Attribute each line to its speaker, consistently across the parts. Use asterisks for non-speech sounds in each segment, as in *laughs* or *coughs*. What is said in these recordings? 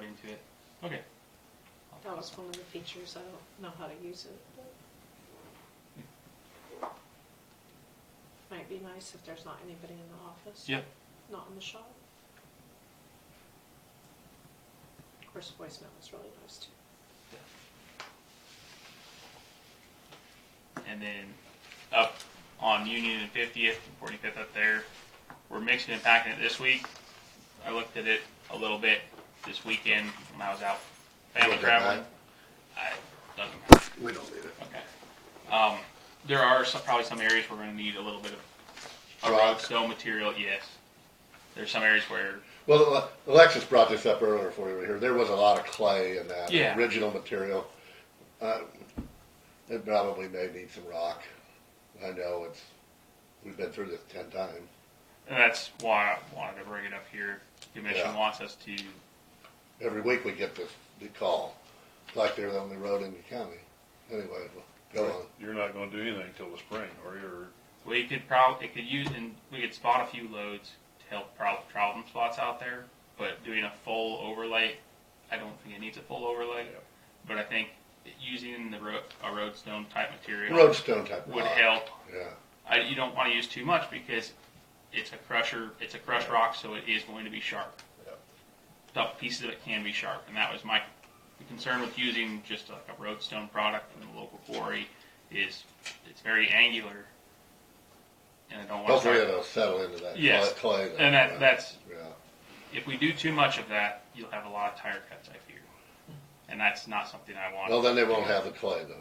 Speaker 1: into it. Okay. I'll
Speaker 2: That
Speaker 1: pass
Speaker 2: was
Speaker 1: on.
Speaker 2: one of the features, I don't know how to use it, but. Might be nice if there's not anybody in the office.
Speaker 1: Yeah,
Speaker 2: Not in the shop. Of course, voicemail is really nice too.
Speaker 1: and then up on Union and 50th, and 45th up there, we're mixing and packing it this week. I looked at it a little bit this weekend when I was out family
Speaker 3: Look at
Speaker 1: traveling.
Speaker 3: that.
Speaker 1: I doesn't matter.
Speaker 3: We don't need it.
Speaker 1: Okay. Um, there are some, probably some areas we're going to need a little bit of a rock
Speaker 3: Rock.
Speaker 1: stone material. Yes, there's some areas where
Speaker 3: Well, Ale- Alexis brought this up earlier for you here. There was a lot of clay in that
Speaker 1: Yeah.
Speaker 3: original material. Uh, it probably may need some rock. I know it's. We've been through this ten times.
Speaker 1: and that's why I wanted to bring it up here. Commission
Speaker 3: Yeah.
Speaker 1: wants us to
Speaker 3: Every week we get this the call. It's like they're the only road in the county. Anyway, well, go on.
Speaker 4: You're not gonna do anything till the spring, or you're,
Speaker 1: We could probably, it could use, and we could spot a few loads to help prob- problem spots out there, but doing a full overlay, I don't think it needs a full overlay.
Speaker 4: Yep.
Speaker 1: But I think using the ro- a roadstone type material
Speaker 3: Roadstone type
Speaker 1: would
Speaker 3: rock.
Speaker 1: help.
Speaker 3: Yeah.
Speaker 1: I, you don't want to use too much because it's a crusher, it's a crush rock, so it is going to be sharp.
Speaker 3: Yep.
Speaker 1: Tough pieces of it can be sharp, and that was my concern with using just like a roadstone product from the local quarry is it's very angular, and I don't want
Speaker 3: Hopefully
Speaker 1: to.
Speaker 3: it'll settle into that
Speaker 1: Yes.
Speaker 3: clay. clay though,
Speaker 1: And
Speaker 3: yeah.
Speaker 1: that that's
Speaker 3: Yeah.
Speaker 1: if we do too much of that, you'll have a lot of tire cuts, I fear, and that's not something I want.
Speaker 3: Well, then they won't have the clay though.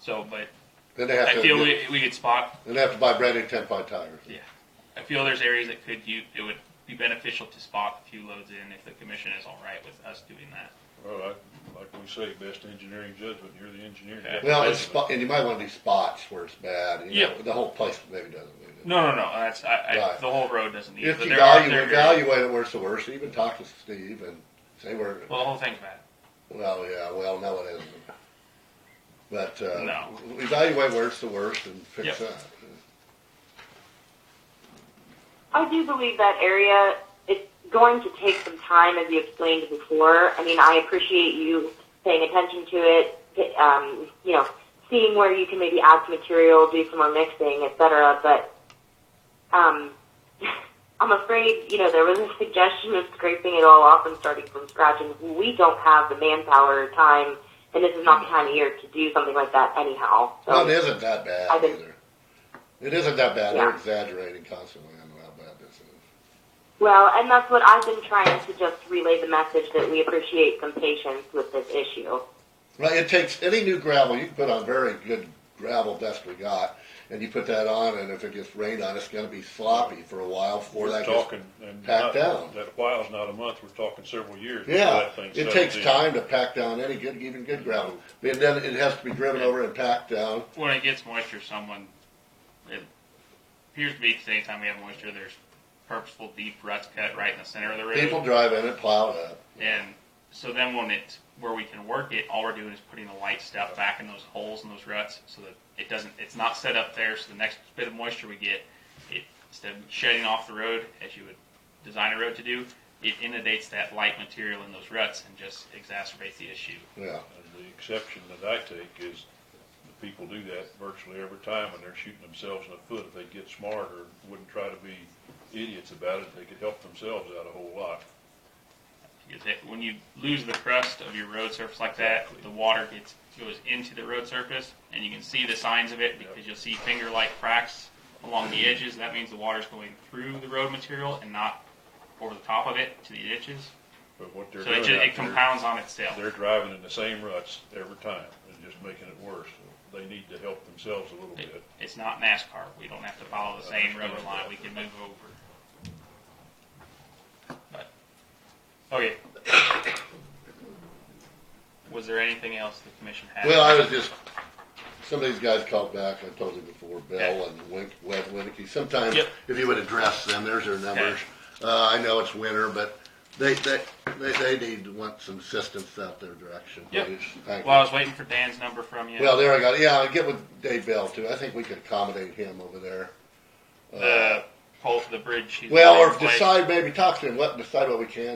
Speaker 1: So, but
Speaker 3: Then they have
Speaker 1: I
Speaker 3: to.
Speaker 1: feel we, we could spot
Speaker 3: then they have to buy brand new ten ply tires.
Speaker 1: Yeah. I feel there's areas that could you it would be beneficial to spot a few loads in if the commission is all right with us doing that.
Speaker 4: well, like, like we say, best engineering judgment, you're the engineer.
Speaker 1: Yeah.
Speaker 3: Well, it's spot, and you might want to do spots where it's bad. You know,
Speaker 1: Yeah.
Speaker 3: the whole place maybe doesn't need it.
Speaker 1: No, no, no. That's I, I,
Speaker 3: Right.
Speaker 1: the whole road doesn't need. it,
Speaker 3: If
Speaker 1: but
Speaker 3: you
Speaker 1: there are-
Speaker 3: value,
Speaker 1: there are-
Speaker 3: evaluate it where it's the worst, even talk to Steve and say where.
Speaker 1: Well, the whole thing's bad.
Speaker 3: Well, yeah, well, no, it isn't. But uh,
Speaker 1: No.
Speaker 3: evaluate where it's the worst and fix
Speaker 1: Yep.
Speaker 3: that.
Speaker 5: I do believe that area is going to take some time, as you explained before. I mean, I appreciate you paying attention to it, um, you know, seeing where you can maybe add some material, do some more mixing, etc. But um, *laughs* I'm afraid, you know, there was a suggestion of scraping it all off and starting from scratch, and we don't have the manpower, time, and this is not the time of year to do something like that anyhow. So.
Speaker 3: Well, it isn't that bad
Speaker 5: I think-
Speaker 3: either. It isn't that bad. They're
Speaker 5: Yeah.
Speaker 3: exaggerating constantly on how bad this is.
Speaker 5: Well, and that's what I've been trying to just relay the message that we appreciate some patience with this issue.
Speaker 3: Well, it takes any new gravel you can put on very good gravel best we got, and you put that on, and if it gets rained on, it's going to be sloppy for a while before
Speaker 4: We're
Speaker 3: that
Speaker 4: talking, and
Speaker 3: packed down.
Speaker 4: not, that while's not a month, we're talking several years.
Speaker 3: gets.
Speaker 4: before
Speaker 3: Yeah,
Speaker 4: that thing
Speaker 3: it
Speaker 4: settles
Speaker 3: takes
Speaker 4: in.
Speaker 3: time to pack down any good, even good gravel. And then it has to be driven over and packed down.
Speaker 1: When it gets moisture, someone it appears to be the same time we have moisture. There's purposeful deep ruts cut right in the center of the road,
Speaker 3: People drive in it, plow it up.
Speaker 1: and so then when it's where we can work it, all we're doing is putting the light stuff back in those holes and those ruts so that it doesn't. It's not set up there, so the next bit of moisture we get, it instead of shedding off the road as you would design a road to do, it inundates that light material in those ruts and just exacerbates the issue.
Speaker 3: Yeah,
Speaker 4: And the exception that I take is, the people do that virtually every time, and they're shooting themselves in the foot if they get smarter, wouldn't try to be idiots about it, they could help themselves out a whole lot.
Speaker 1: Because it, when you lose the crust of your road surface like that, the water gets goes into the road surface, and you can see the signs of it because you'll see finger-like cracks along the edges. That means the water's going through the road material and not over the top of it to the ditches.
Speaker 4: But what they're
Speaker 1: so it,
Speaker 4: doing
Speaker 1: just, it
Speaker 4: out there.
Speaker 1: compounds on itself.
Speaker 4: They're driving in the same ruts every time and just making it worse. They need to help themselves a little
Speaker 1: It-
Speaker 4: bit.
Speaker 1: it's not NASCAR. We don't have to follow
Speaker 4: Uh,
Speaker 1: the same rubber line. We can move over. But oh, okay. *coughs* Was there anything else the commission had?
Speaker 3: Well, I was just, some of these guys called back, I told you before, Bell
Speaker 1: Okay.
Speaker 3: and Wink, Webb Winicky. Sometimes,
Speaker 1: Yep.
Speaker 3: if you would address them, there's their numbers. Uh, I know it's winter, but they, they, they, they need, to want some assistance out their direction,
Speaker 1: Yep.
Speaker 3: please. Thank
Speaker 1: Well, I
Speaker 3: you.
Speaker 1: was waiting for Dan's number from you.
Speaker 3: Well, there I got, yeah, I get with Dave Bell too. I think we could accommodate him over there.
Speaker 1: Uh, the pole for the bridge. he's
Speaker 3: Well,
Speaker 1: laying in
Speaker 3: or
Speaker 1: place.
Speaker 3: decide, maybe talk to him, let, decide what we can